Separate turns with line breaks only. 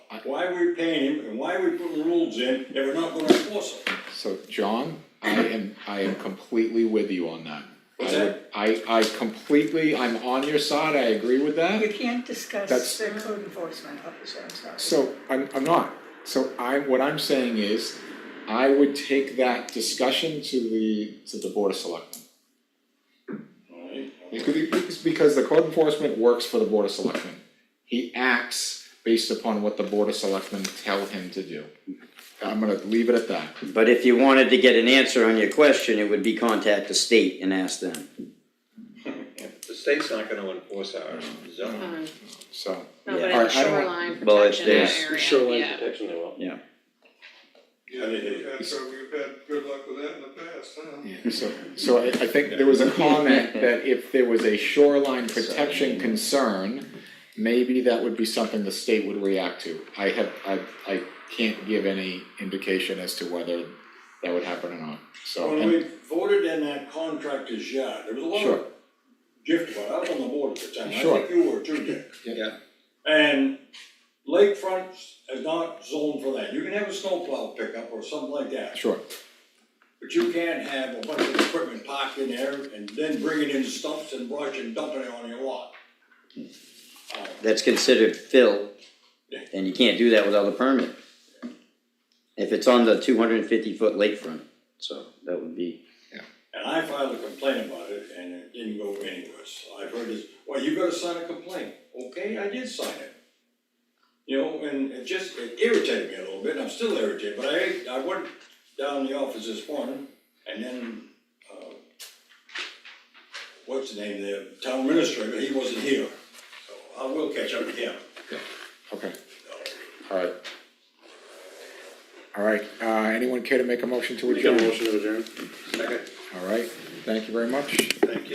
Why are we paying him and why are we putting rules in if we're not gonna enforce them?
So John, I am, I am completely with you on that. I
What's
would-
that?
I, I completely, I'm on your side, I agree with that.
You can't discuss
That's-
the code enforcement officer, I'm sorry.
So I'm I'm not, so I, what I'm saying is, I would take that discussion to the, to the board of selectmen.
Alright,
Because because- because the code enforcement works for the board of selectmen, he acts based upon what the board of selectmen tell him to do. I'm gonna leave it at that,
But if you wanted to get an answer on your question, it would be contact the state and ask them.
The state's not gonna enforce our zone.
Um,
so.
No, but
All
in
right,
the
I don't-
shoreline
Well, it's-
protection area,
it's
yeah.
protection they will.
Yeah, we've had, so we've had good luck with that in the past, huh?
Yeah, So, so I, I think there was a comment that if there was a shoreline protection concern, maybe that would be something the state would react to. I have, I, I can't give any indication as to whether that would happen or not, so,
When
and,
we voted in that contractor's yard, there was a lot
sure,
of gift, but I was on the board at the time, I
Sure.
think you were too, Dick.
Yeah.
Yeah.
And lakefront is not zoned for that, you can have a snowplow pickup or something like that,
sure.
but you can't have a bunch of equipment parked in there and then bringing in stumps and brush and dumping it on your lot. Uh,
That's considered fill, and you can't do that without a permit. If it's on the two hundred and fifty foot lakefront, so that would be,
And I filed a complaint about it and it didn't go anywhere, so I've heard this, well, you gotta sign a complaint, okay, I did sign it. You know, and it just, it irritated me a little bit, and I'm still irritated, but I, I went down to the office this morning, and then, uh, what's the name, the town administrator, he wasn't here, so I will catch up with him.
Okay, alright. Alright, uh, anyone care to make a motion to adjourn?
motion to adjourn. Second.
Alright, thank you very much.